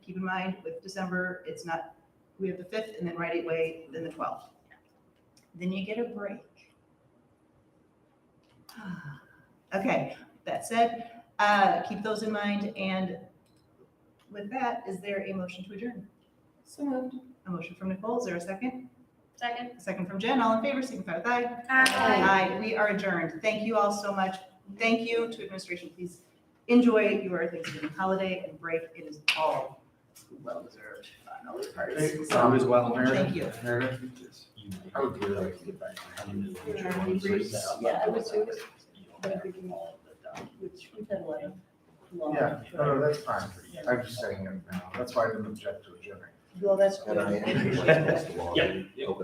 keep in mind with December, it's not, we have the fifth and then right away, then the twelfth. Then you get a break. Okay, that said, uh, keep those in mind and with that, is there a motion to adjourn? So moved. A motion from Nicole, is there a second? Second. A second from Jen, all in favor, signify with aye. Aye, we are adjourned. Thank you all so much. Thank you to administration. Please enjoy your Thanksgiving holiday and break. It is all well-deserved on all parties. Tom as well, Um, Thank you. I would really like to get back to having the original Briefs. set up. Yeah, I would too. You don't have all of it done. Which we've had a lot of long. Yeah, no, no, that's fine. I'm just saying, it now. that's why I didn't object to it, Jimmy. Well, that's. good. And I- Yep.